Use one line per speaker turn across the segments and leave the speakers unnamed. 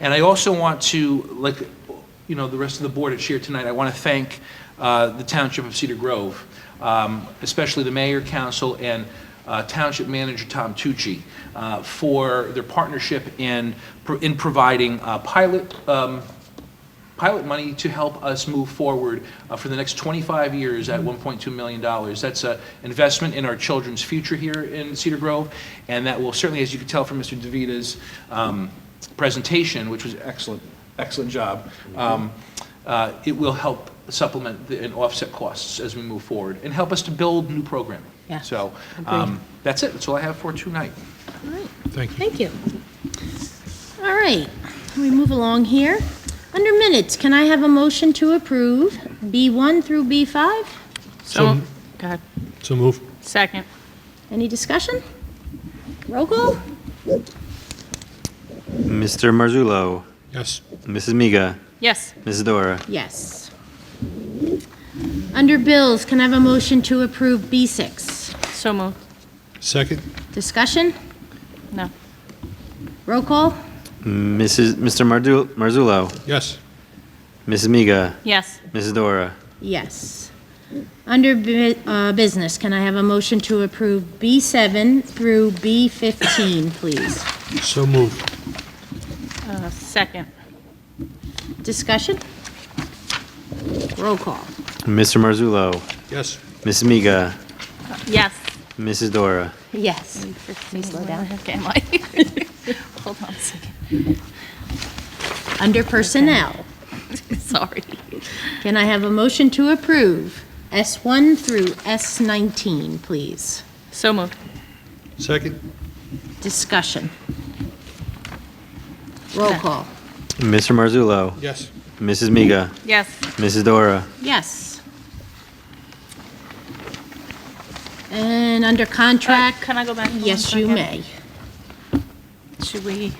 And I also want to, like, you know, the rest of the board that's here tonight, I want to thank uh, the Township of Cedar Grove, um, especially the mayor, council, and uh, Township Manager Tom Tucci uh, for their partnership in, in providing uh, pilot um, pilot money to help us move forward uh, for the next 25 years at $1.2 million. That's an investment in our children's future here in Cedar Grove, and that will certainly, as you can tell from Mr. DeVita's um, presentation, which was excellent, excellent job, um, uh, it will help supplement the- and offset costs as we move forward, and help us to build new programming.
Yeah,
So um, that's it, that's all I have for tonight.
Thank you. Thank you. All right, we move along here. Under minutes, can I have a motion to approve B1 through B5?
So,
Go ahead.
so move.
Second.
Any discussion? Roll call?
Mr. Marzullo,
Yes.
Mrs. Miga,
Yes.
Mrs. Dora,
Yes. Under bills, can I have a motion to approve B6?
So moved.
Second?
Discussion?
No.
Roll call?
Mrs. Mr. Mardu- Marzullo,
Yes.
Mrs. Miga,
Yes.
Mrs. Dora,
Yes. Under bu- uh, business, can I have a motion to approve B7 through B15, please?
So move.
Uh, Second.
Discussion? Roll call.
Mr. Marzullo,
Yes.
Mrs. Miga,
Yes.
Mrs. Dora,
Yes.
Can you slow down? Okay, Mike. Hold on a second.
Under personnel,
Sorry.
can I have a motion to approve S1 through S19, please?
So moved.
Second?
Discussion. Roll call.
Mr. Marzullo,
Yes.
Mrs. Miga,
Yes. Uh,
Mrs. Dora,
Yes. And under
Uh,
contract,
Can I go back? one
yes, you
second?
may.
Should we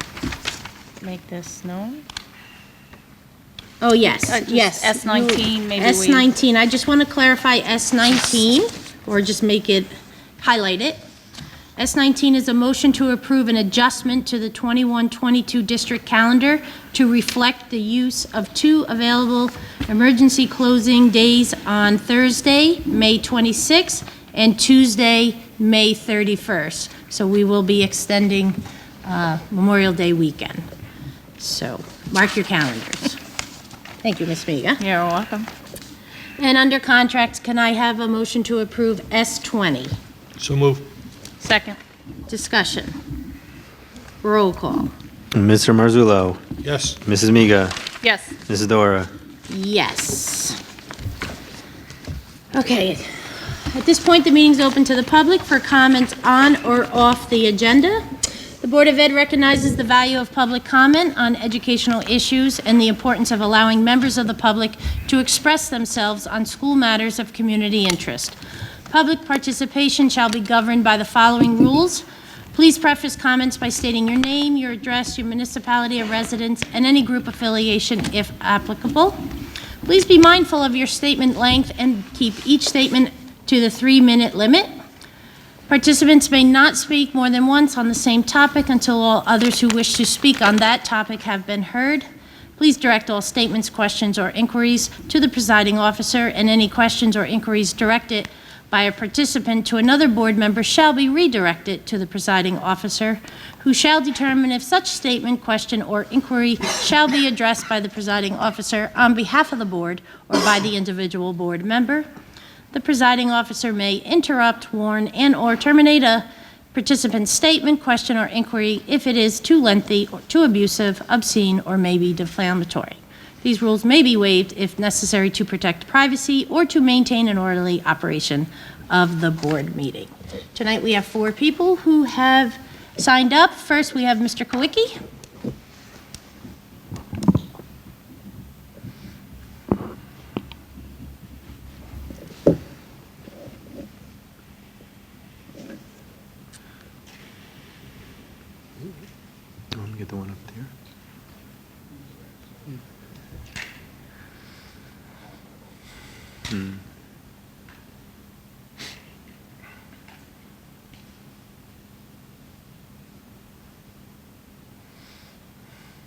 make this known?
Oh, yes,
Uh, just
yes.
S19,
You-
maybe we-
S19, I just want to clarify S19, or just make it, highlight it. S19 is a motion to approve an adjustment to the 21-22 district calendar to reflect the use of two available emergency closing days on Thursday, May 26th, and Tuesday, May 31st. So we will be extending uh, Memorial Day weekend. So mark your calendars. Thank you, Ms. Miga.
You're welcome.
And under contract, can I have a motion to approve S20?
So move.
Second.
Discussion. Roll call.
Mr. Marzullo,
Yes.
Mrs. Miga,
Yes.
Mrs. Dora,
Yes. Okay. At this point, the meeting's open to the public for comments on or off the agenda. The Board of Ed recognizes the value of public comment on educational issues and the importance of allowing members of the public to express themselves on school matters of community interest. Public participation shall be governed by the following rules. Please preface comments by stating your name, your address, your municipality of residence, and any group affiliation if applicable. Please be mindful of your statement length and keep each statement to the three-minute limit. Participants may not speak more than once on the same topic until all others who wish to speak on that topic have been heard. Please direct all statements, questions, or inquiries to the presiding officer, and any questions or inquiries directed by a participant to another board member shall be redirected to the presiding officer, who shall determine if such statement, question, or inquiry shall be addressed by the presiding officer on behalf of the board or by the individual board member. The presiding officer may interrupt, warn, and/or terminate a participant's statement, question, or inquiry if it is too lengthy, or too abusive, obscene, or may be defamatory. These rules may be waived if necessary to protect privacy or to maintain an orderly operation of the board meeting. Tonight, we have four people who have signed up. First, we have Mr. Kowicki.